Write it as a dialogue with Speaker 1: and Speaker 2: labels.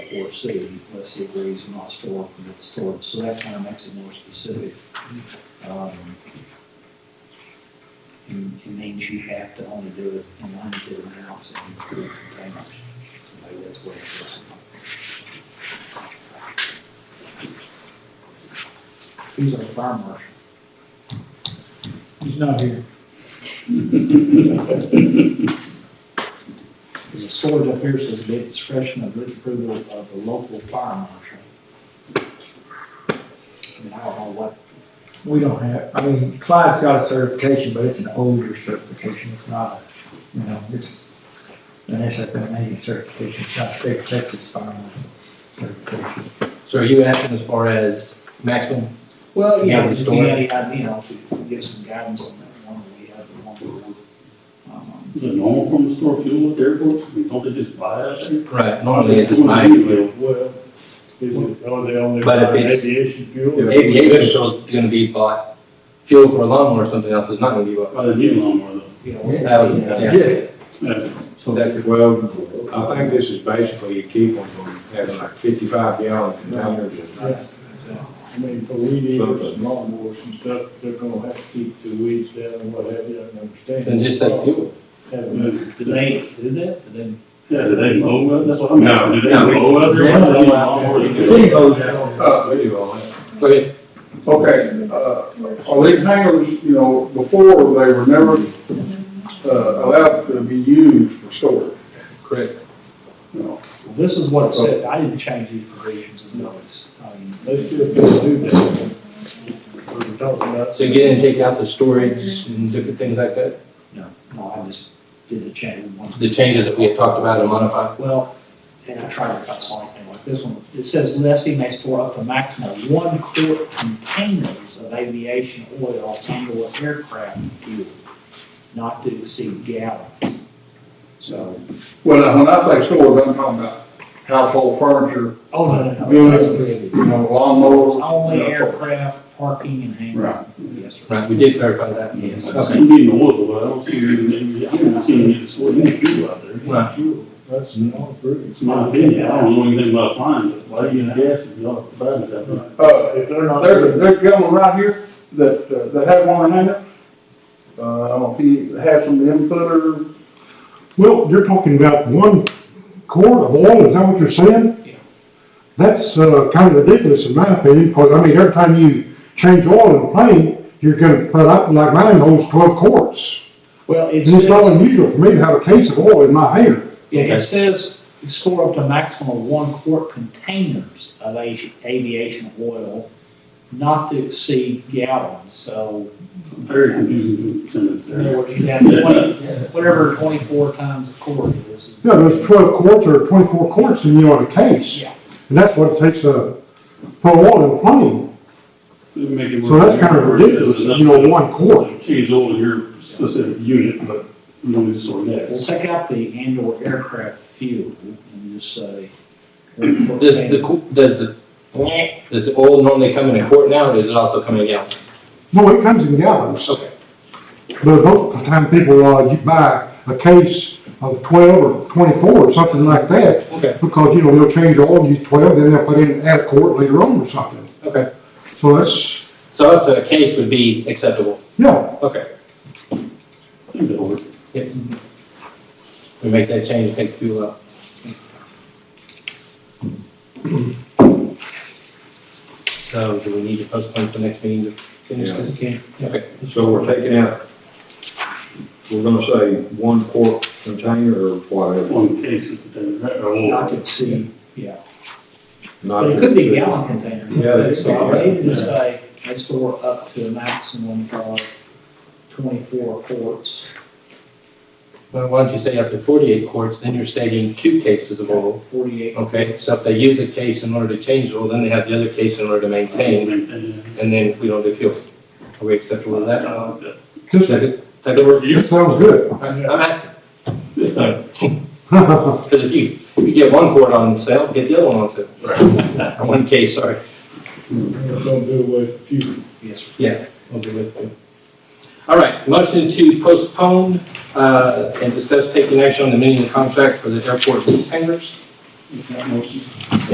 Speaker 1: for C, unless he agrees not stored permit the storage, so that kind of makes it more specific. Um, and- It means you have to only do it in limited amounts and in containers, so maybe that's what it is. He's our fire marshal.
Speaker 2: He's not here.
Speaker 1: The storage up here says the discretion of the approval of the local fire marshal. I mean, I don't know what,
Speaker 2: We don't have, I mean, Clyde's got a certification, but it's an older certification. It's not, a you know, it's an SFMA certification. It's not state of Texas fire marshal certification.
Speaker 3: So are you asking as far as maximum?
Speaker 1: well,
Speaker 3: Yeah,
Speaker 1: yeah,
Speaker 3: the
Speaker 1: just
Speaker 3: storage.
Speaker 1: any idea, if you can give some guidance on that one, we have the one we um,
Speaker 4: Is it normal from the store fuel at the airport? I mean, don't they just buy it? there?
Speaker 3: Right, normally it's just my
Speaker 5: Well, is it, are they only
Speaker 3: But if
Speaker 5: buying
Speaker 3: it's-
Speaker 5: aviation fuel?
Speaker 3: Aviation fuel's gonna be bought, fuel for a lawnmower or something else is not gonna be bought.
Speaker 4: Buy the new lawnmower
Speaker 1: you know.
Speaker 3: That was, yeah.
Speaker 4: though. Yeah.
Speaker 3: So that,
Speaker 6: Well, I think this is basically to keep them from having like fifty-five gallon containers and
Speaker 1: Oh,
Speaker 5: Yes. I mean, for weed eaters and lawnmowers and stuff, they're gonna have to keep the weeds down and what have you, I understand.
Speaker 3: and just that fuel.
Speaker 5: Have- Did they do that? Did they?
Speaker 4: Yeah, do they mow up? That's what I'm
Speaker 6: No,
Speaker 4: asking. Do they
Speaker 6: no, we-
Speaker 4: mow up
Speaker 2: they
Speaker 4: there?
Speaker 2: don't
Speaker 4: They
Speaker 2: mow
Speaker 4: lawnmowers
Speaker 2: The
Speaker 4: do it.
Speaker 2: city owns that.
Speaker 6: Uh, video on it.
Speaker 3: Go ahead.
Speaker 7: Okay, uh, are these hangers, you know, before they were never, uh, allowed to be used for storage?
Speaker 3: Correct.
Speaker 7: you know?
Speaker 1: Well, This is what it said, I didn't change these provisions in notice. I mean,
Speaker 5: They still don't do that. We were talking about.
Speaker 3: So you get in, and take out the storage and different things like that,
Speaker 1: no, no, I just did the change one.
Speaker 3: the changes that we had talked about and modified.
Speaker 1: Well, and I tried to cut something like this one, it says lessee may store up to maximum of one quart containers of aviation oil and or aircraft fuel, not to exceed gallons. So,
Speaker 7: Well, now, when I say storage, I'm talking about household furniture,
Speaker 1: oh, no, no, no. that's
Speaker 7: buildings,
Speaker 1: prohibited.
Speaker 7: you know, lawnmowers.
Speaker 1: It's Only
Speaker 7: that sort of-
Speaker 1: aircraft, parking and hangar.
Speaker 7: Right.
Speaker 1: Yes, sir.
Speaker 3: Right, we did clarify that.
Speaker 1: Yes.
Speaker 4: I
Speaker 3: Okay.
Speaker 4: see you need an oil, but I don't see you need, I don't see you need to store any fuel out there.
Speaker 3: Right.
Speaker 5: That's not approved.
Speaker 4: It's my opinion. I don't know anything about flying, but why do you gas if y'all provide it that much?
Speaker 7: Uh,
Speaker 5: If they're not.
Speaker 7: There's, there's a gentleman right here that, uh, that had one in there. Uh, I don't know if he had some input or
Speaker 8: Well, you're talking about one quart of oil, is that what you're saying?
Speaker 1: Yeah.
Speaker 8: That's, uh, kind of ridiculous in my opinion, because, I mean, every time you change oil in a plane, you're gonna put up, like mine holds twelve quarts.
Speaker 1: Well, it's.
Speaker 8: It's just not unusual for me to have a case of oil in my hand.
Speaker 1: Yeah, it
Speaker 3: Okay.
Speaker 1: says you store up to a maximum of one quart containers of avi- aviation oil, not to exceed gallons, so
Speaker 4: Very confusing sentence
Speaker 1: in other
Speaker 4: there.
Speaker 1: words, you have twenty, whatever twenty-four times a quart is.
Speaker 8: Yeah, there's twelve quarts or twenty-four quarts in, you know, in a case.
Speaker 1: Yeah.
Speaker 8: And that's what it takes to put oil in a plane,
Speaker 4: It'd make it
Speaker 8: so that's
Speaker 4: work.
Speaker 8: kind of ridiculous, you know, one quart.
Speaker 4: Change oil in your specific unit, but you don't need to store gas.
Speaker 1: We'll take out the and/or aircraft fuel and just say. uh,
Speaker 3: Does the, co- does the, does the oil normally come in a quart now, or does it also come in a gallon?
Speaker 8: No, it comes in gallons.
Speaker 3: Okay.
Speaker 8: But most of the time, people, uh, you buy a case of twelve or twenty-four or something like that,
Speaker 3: Okay,
Speaker 8: because, you know, they'll change all, use twelve, then they'll put in, add a quart later on or something.
Speaker 3: okay.
Speaker 8: So that's,
Speaker 3: So up to a case would be acceptable.
Speaker 8: yeah,
Speaker 3: Okay.
Speaker 4: I think that'll work.
Speaker 3: Yep. We make that change, take the fuel out. So do we need to postpone for next meeting to finish this, Ken? Okay.
Speaker 6: So we're taking out, we're gonna say one quart container or whatever.
Speaker 4: One case of containers, right, or oil.
Speaker 1: Not to exceed, yeah,
Speaker 6: not
Speaker 1: but it could be gallon containers.
Speaker 6: Yeah, that's-
Speaker 1: So I need to say, they store up to a maximum of twenty-four quarts.
Speaker 3: Well, why don't you say up to forty-eight quarts, then you're stating two cases of oil.
Speaker 1: Forty-eight.
Speaker 3: Okay, so if they use a case in order to change the oil, then they have the other case in order to maintain,
Speaker 4: Maintain.
Speaker 3: and then we don't do fuel. Are we acceptable with that?
Speaker 4: I like that. uh,
Speaker 8: just,
Speaker 3: Second, second word for you?
Speaker 8: that sounds good.
Speaker 3: I'm asking.
Speaker 4: Yeah.
Speaker 3: Because if you, if you get one quart on sale, get the other one on sale. Right. One case, sorry.
Speaker 5: They're gonna do away with fuel.
Speaker 1: Yes, sir.
Speaker 3: Yeah, we'll be with you. All right, motion to postpone uh, and discuss taking action on the minimum contract for the airport lease hangars.
Speaker 4: Is that motion?